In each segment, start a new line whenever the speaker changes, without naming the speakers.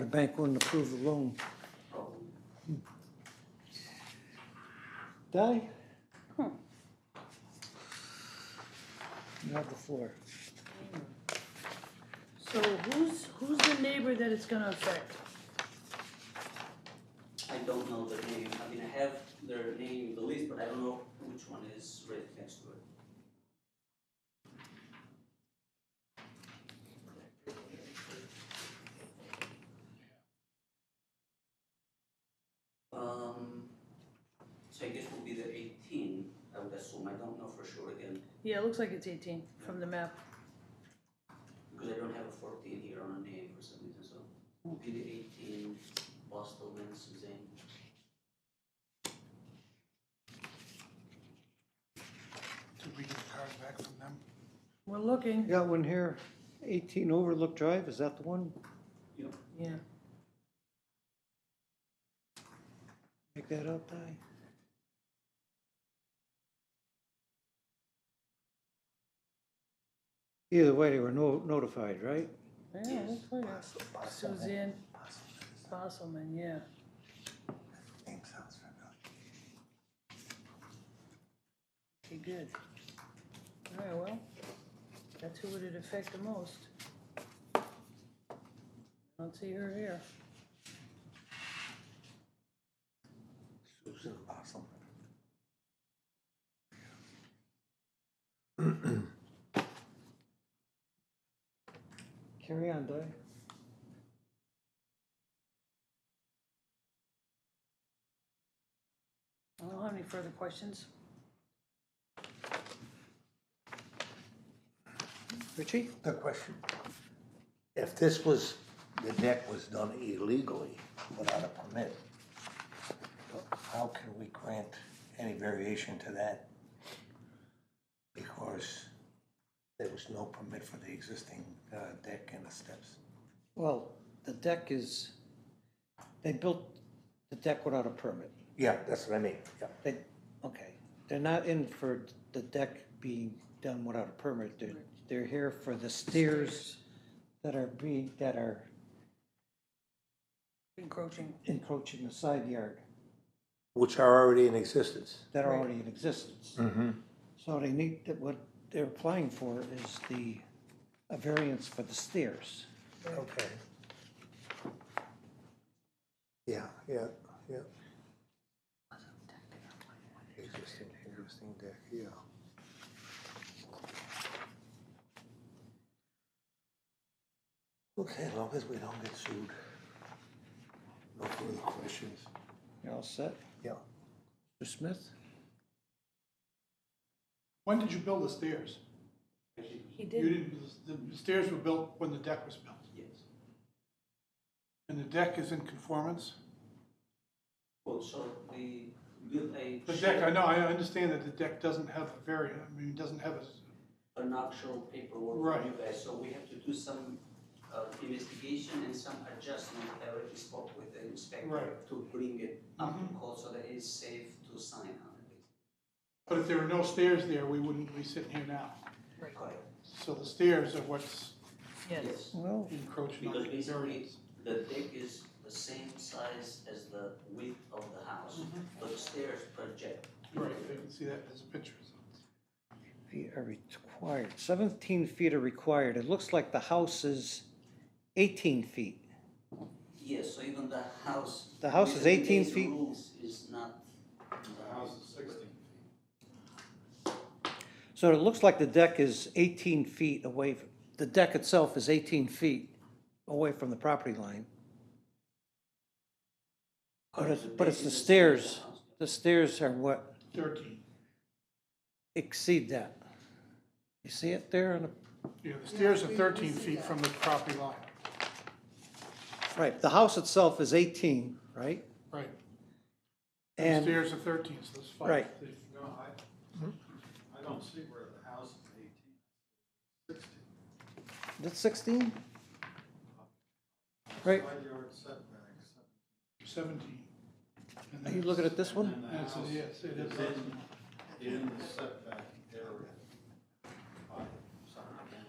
The bank wouldn't approve the loan. Di? You have the floor.
So who's, who's the neighbor that it's gonna affect?
I don't know their name, I mean, I have their name in the list, but I don't know which one is right next to it. Um, so I guess will be the eighteen, I would assume, I don't know for sure again,
Yeah, it looks like it's eighteen from the map.
because I don't have a fourteen here on a name for some reason, so it will be the eighteen, Bostelman, Suzanne.
Did we get cars back from them?
We're looking,
Got one here, eighteen Overlook Drive, is that the one?
yeah.
Make that up, Di? Either way, they were no- notified, right?
Yeah, it looks like it. Suzanne Fosselman, yeah.
Name sounds familiar.
Okay, good. Alright, well, that's who would it affect the most. I don't see her here.
Susan. Awesome.
Carry on, Di.
I don't have any further questions.
Richie?
The question, if this was, the deck was done illegally without a permit, how can we grant any variation to that? Because there was no permit for the existing uh, deck and the steps.
Well, the deck is, they built the deck without a permit.
Yeah, that's what I mean, yeah.
They, okay, they're not in for the deck being done without a permit, they're, they're here for the stairs that are being, that are
Encroaching.
encroaching the side yard,
Which are already in existence.
that are already in existence.
Mm-hmm.
So they need, that what they're applying for is the, a variance for the stairs.
Okay. Yeah, yeah, yeah. Existing, existing deck, yeah. Okay, as long as we don't get sued. No further questions.
You're all set?
Yeah.
Mr. Smith?
When did you build the stairs?
He
You didn't, the stairs were built when the deck was built,
Yes.
and the deck is in conformance?
Well, so the, built a.
The
shared-
deck, I know, I understand that the deck doesn't have a variant, I mean, it doesn't have a,
an actual paperwork from you guys, so we have to do some uh, investigation and some adjustment. I already spoke with the inspector
Right.
to bring it up to code so that it's safe to sign on it.
but if there were no stairs there, we wouldn't be sitting here now.
Correct.
So the stairs are what's
Yes.
Well,
encroaching on
Because
the
basically,
variance.
the deck is the same size as the width of the house, but the stairs project.
Right, I can see that in this picture. so.
feet are required, seventeen feet are required, it looks like the house is eighteen feet.
Yes, so even the house.
The house is
within
18
these
feet.
Rules is not. The house is sixteen.
So it looks like the deck is 18 feet away, f- the deck itself is 18 feet away from the property line. But it's, but it's the stairs, the stairs are what
Thirteen,
exceed that. You see it there on the,
yeah, the stairs are thirteen feet from the property line,
right, the house itself is 18, right?
right? The
And,
stairs are thirteen, so it's five.
Right.
feet.
No, I, I don't see where the house is eighteen, sixteen.
that's 16? Right,
Side yard setback, seven-
Seventeen. And
are
then
you looking at this one?
and the
Yes, it
house
is,
is
it is.
in, in the setback area. by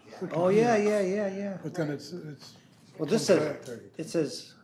subdivision.
Oh, yeah, yeah, yeah, yeah.
But then it's, it's
Well, this says, it says